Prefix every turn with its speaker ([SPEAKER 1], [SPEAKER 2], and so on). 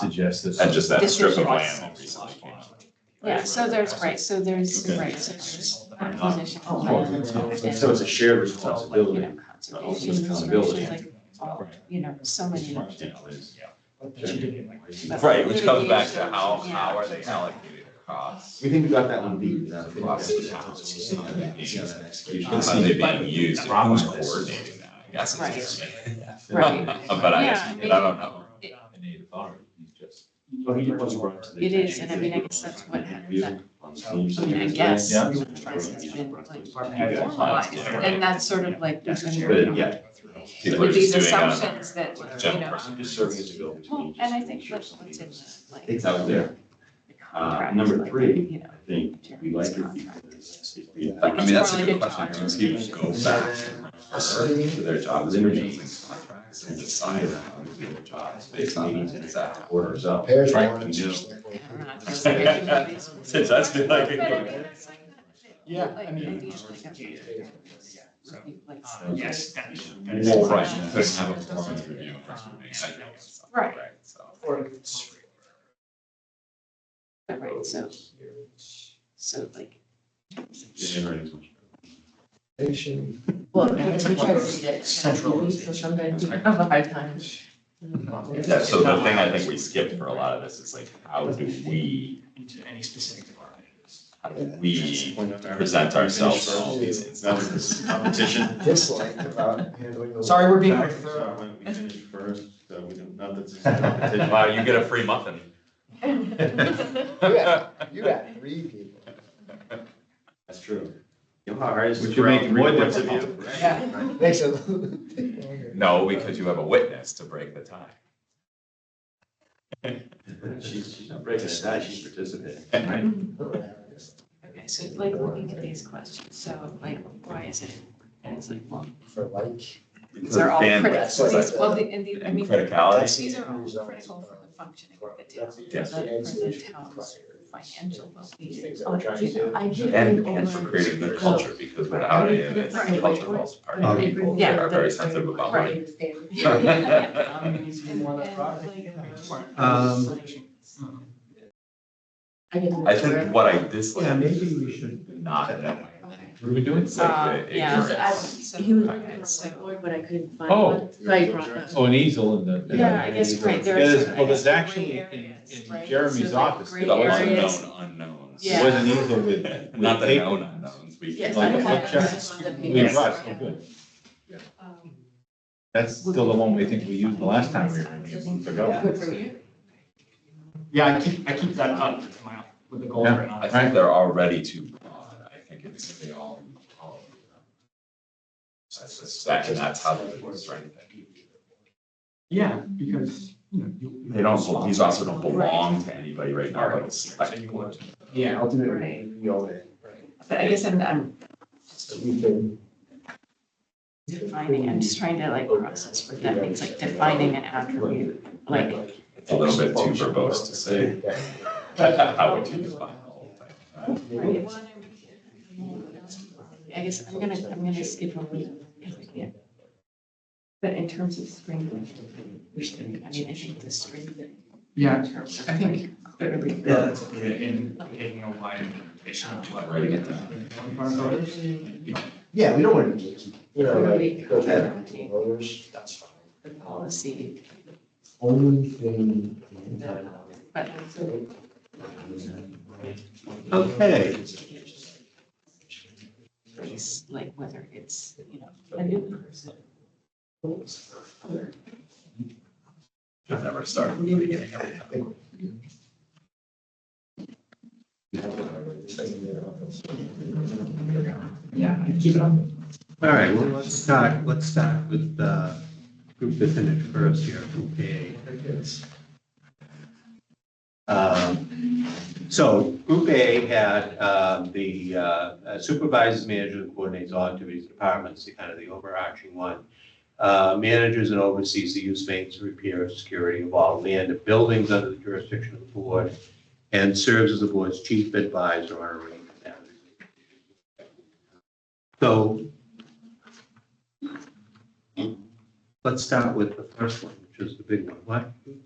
[SPEAKER 1] suggest that.
[SPEAKER 2] And just that strip of
[SPEAKER 3] Decision.
[SPEAKER 2] land that recently came up.
[SPEAKER 3] Yeah, so there's, right, so there's,
[SPEAKER 2] Okay.
[SPEAKER 3] right, so there's acquisition.
[SPEAKER 1] Oh,
[SPEAKER 3] plan,
[SPEAKER 1] So so it's a shared
[SPEAKER 3] You
[SPEAKER 1] responsibility.
[SPEAKER 3] know,
[SPEAKER 1] Ultimate
[SPEAKER 3] conservation
[SPEAKER 1] accountability.
[SPEAKER 3] restoration, like, all, you know, so many. but
[SPEAKER 2] Right, which comes back to
[SPEAKER 3] litigation,
[SPEAKER 2] how,
[SPEAKER 3] yeah.
[SPEAKER 2] how are they allocated across?
[SPEAKER 1] We think we got that one beat. without a
[SPEAKER 2] Across
[SPEAKER 1] problem.
[SPEAKER 2] the town.
[SPEAKER 1] Yeah, that execution.
[SPEAKER 2] How are they being used, and who's coordinating that, I guess
[SPEAKER 3] Right.
[SPEAKER 2] it's interesting.
[SPEAKER 3] Right.
[SPEAKER 2] But I,
[SPEAKER 3] Yeah, I
[SPEAKER 2] I don't know.
[SPEAKER 1] Well, he was brought to the
[SPEAKER 3] It is, and I
[SPEAKER 1] attention.
[SPEAKER 3] mean, I guess that's what happens. I
[SPEAKER 1] I mean,
[SPEAKER 3] mean, I guess.
[SPEAKER 1] Yeah.
[SPEAKER 3] the trust has been, like,
[SPEAKER 1] Yeah.
[SPEAKER 3] formalized, And that's sort of like, there's been,
[SPEAKER 1] But yeah.
[SPEAKER 2] People are
[SPEAKER 3] with these
[SPEAKER 2] just doing uh, it on their
[SPEAKER 3] assumptions that, you
[SPEAKER 2] general
[SPEAKER 3] know.
[SPEAKER 1] I'm
[SPEAKER 2] person.
[SPEAKER 1] just serving as a bill.
[SPEAKER 3] Well, and I think that's what's in the, like.
[SPEAKER 1] It's out there.
[SPEAKER 3] the contract,
[SPEAKER 1] number
[SPEAKER 3] like,
[SPEAKER 1] three,
[SPEAKER 3] You know.
[SPEAKER 1] I think we like it. because it-
[SPEAKER 2] But I mean, that's a
[SPEAKER 3] Probably
[SPEAKER 2] good
[SPEAKER 3] good
[SPEAKER 2] question,
[SPEAKER 3] job.
[SPEAKER 2] do people go back and refer to their job descriptions and contracts and decide how to do their jobs based on that, is that how it works?
[SPEAKER 1] Orders up.
[SPEAKER 4] Pairs
[SPEAKER 2] Right,
[SPEAKER 4] warrants.
[SPEAKER 2] we do.
[SPEAKER 3] I don't know, it feels like everybody's-
[SPEAKER 2] It does feel like it.
[SPEAKER 3] But I mean, that's like that-
[SPEAKER 4] Yeah,
[SPEAKER 3] like,
[SPEAKER 4] I mean-
[SPEAKER 3] idea of like a- like,
[SPEAKER 5] Uh, Yes.
[SPEAKER 2] Well, right, you couldn't
[SPEAKER 5] Uh,
[SPEAKER 2] have a performance review in person, I guess.
[SPEAKER 3] Right.
[SPEAKER 2] so.
[SPEAKER 3] Right, so, so like,
[SPEAKER 4] Patient.
[SPEAKER 6] Well, I guess we try to read it. Central. So sometimes we have a hard time.
[SPEAKER 2] Yeah, so the thing I think we skipped for a lot of this is like, how do we,
[SPEAKER 5] Into any specific department.
[SPEAKER 2] how do we present ourselves in all these instances?
[SPEAKER 1] Competition.
[SPEAKER 4] Dislike about handling those.
[SPEAKER 6] Sorry, we're being.
[SPEAKER 1] We finished first, so we don't, not that's.
[SPEAKER 2] Wow, you get a free muffin.
[SPEAKER 4] You had, you had three people.
[SPEAKER 1] That's true. You know how hard it is to
[SPEAKER 2] Would you
[SPEAKER 1] throw
[SPEAKER 2] make
[SPEAKER 1] out
[SPEAKER 2] it
[SPEAKER 1] more
[SPEAKER 2] more
[SPEAKER 1] points of
[SPEAKER 2] difficult?
[SPEAKER 1] view?
[SPEAKER 4] Yeah. Makes it a little bit longer.
[SPEAKER 2] No, because you have a witness to break the tie.
[SPEAKER 1] She's, she's not breaking it down, she's participating, right?
[SPEAKER 3] okay, so like looking at these questions, so like, why is it? And it's like, well,
[SPEAKER 4] For like.
[SPEAKER 3] these are all critical,
[SPEAKER 2] Bandwidth,
[SPEAKER 4] critical.
[SPEAKER 2] like-
[SPEAKER 3] these, well, the- and the, I
[SPEAKER 2] And
[SPEAKER 3] mean,
[SPEAKER 2] criticality,
[SPEAKER 3] these are all critical for the functioning of the town,
[SPEAKER 2] Yes.
[SPEAKER 3] for the town's financial well-being.
[SPEAKER 4] Things that we're trying to do.
[SPEAKER 6] I do.
[SPEAKER 2] and, and for creating the culture, because without it, it's
[SPEAKER 3] Right.
[SPEAKER 2] culture falls apart. Our people
[SPEAKER 3] Yeah.
[SPEAKER 2] are very sensitive about money.
[SPEAKER 6] Right.
[SPEAKER 3] And- and, like,
[SPEAKER 7] Um,
[SPEAKER 6] I get
[SPEAKER 2] I think what I dislike.
[SPEAKER 7] Yeah, maybe
[SPEAKER 2] is
[SPEAKER 7] we should-
[SPEAKER 2] Not knowing.
[SPEAKER 3] Okay.
[SPEAKER 7] What are we doing?
[SPEAKER 2] It's like the
[SPEAKER 3] Uh, yeah.
[SPEAKER 2] ignorance.
[SPEAKER 3] So,
[SPEAKER 6] He was
[SPEAKER 3] okay,
[SPEAKER 6] looking for a
[SPEAKER 3] so-
[SPEAKER 6] whiteboard, but I couldn't find
[SPEAKER 7] Oh.
[SPEAKER 6] one, so I brought that.
[SPEAKER 7] Oh, an easel in the. in the-
[SPEAKER 3] Yeah, I guess, right, there
[SPEAKER 7] Yeah,
[SPEAKER 3] is.
[SPEAKER 7] there's- Well, there's actually in, in Jeremy's office,
[SPEAKER 3] Gray
[SPEAKER 7] there
[SPEAKER 2] The
[SPEAKER 3] areas.
[SPEAKER 2] unknown unknowns.
[SPEAKER 3] Yeah.
[SPEAKER 7] was an easel with,
[SPEAKER 2] Not
[SPEAKER 7] with
[SPEAKER 2] the
[SPEAKER 7] paper.
[SPEAKER 2] known unknowns, we.
[SPEAKER 6] Yes,
[SPEAKER 7] Like
[SPEAKER 6] I
[SPEAKER 7] a
[SPEAKER 6] have.
[SPEAKER 7] book chart.
[SPEAKER 6] this on the
[SPEAKER 7] We
[SPEAKER 6] paper.
[SPEAKER 7] rushed, oh, good.
[SPEAKER 3] Um,
[SPEAKER 7] That's still the one we think we used the last time we were in here, months ago.
[SPEAKER 6] Good for you.
[SPEAKER 5] Yeah, I keep, I keep that up with my, with the goal
[SPEAKER 7] Yeah.
[SPEAKER 5] written on
[SPEAKER 2] I
[SPEAKER 5] it.
[SPEAKER 2] think they're already too broad, I think it's, they all, all. I suspect, and that's how they were strengthened.
[SPEAKER 5] Yeah, because, you know, you.
[SPEAKER 2] They don't, bel- these also don't belong to anybody right now, like, it's
[SPEAKER 5] So
[SPEAKER 2] like,
[SPEAKER 5] you want-
[SPEAKER 4] Yeah, ultimately, we own it.
[SPEAKER 3] But I guess I'm, I'm
[SPEAKER 4] So we can.
[SPEAKER 3] defining, I'm just trying to like process what that means, like defining an attribute, like,
[SPEAKER 2] it's a little bit too verbose to say. How would you define the whole thing?
[SPEAKER 3] right, well, I guess I'm gonna, I'm gonna skip a week if we can. But in terms of spring, we should, I mean, I think the spring thing.
[SPEAKER 5] Yeah,
[SPEAKER 3] in terms of,
[SPEAKER 5] I think
[SPEAKER 3] like,
[SPEAKER 5] that
[SPEAKER 3] every-
[SPEAKER 5] everything that's in taking a wide interpretation of what.
[SPEAKER 2] Ready to get that.
[SPEAKER 5] Farm voters, you know,
[SPEAKER 4] Yeah, we don't want to, you know, like, go ahead, that's fine.
[SPEAKER 3] The policy,
[SPEAKER 4] Only thing.
[SPEAKER 3] but so
[SPEAKER 7] Okay.
[SPEAKER 3] place, like whether it's, you know, a new person.
[SPEAKER 2] I've never started from the beginning every time.
[SPEAKER 5] yeah, I keep it up.
[SPEAKER 7] All right, well, let's start, let's start with the group that's in it first here, group A. Um, So group A had uh, the uh, supervisors, managers, and coordinates all activities, departments, the kind of the overarching one. Uh, Manages and oversees the use, maintenance, repair, and security of all land and buildings under the jurisdiction of the board and serves as the board's chief advisor on a range of matters. So Let's start with the first one, which is the big one. What,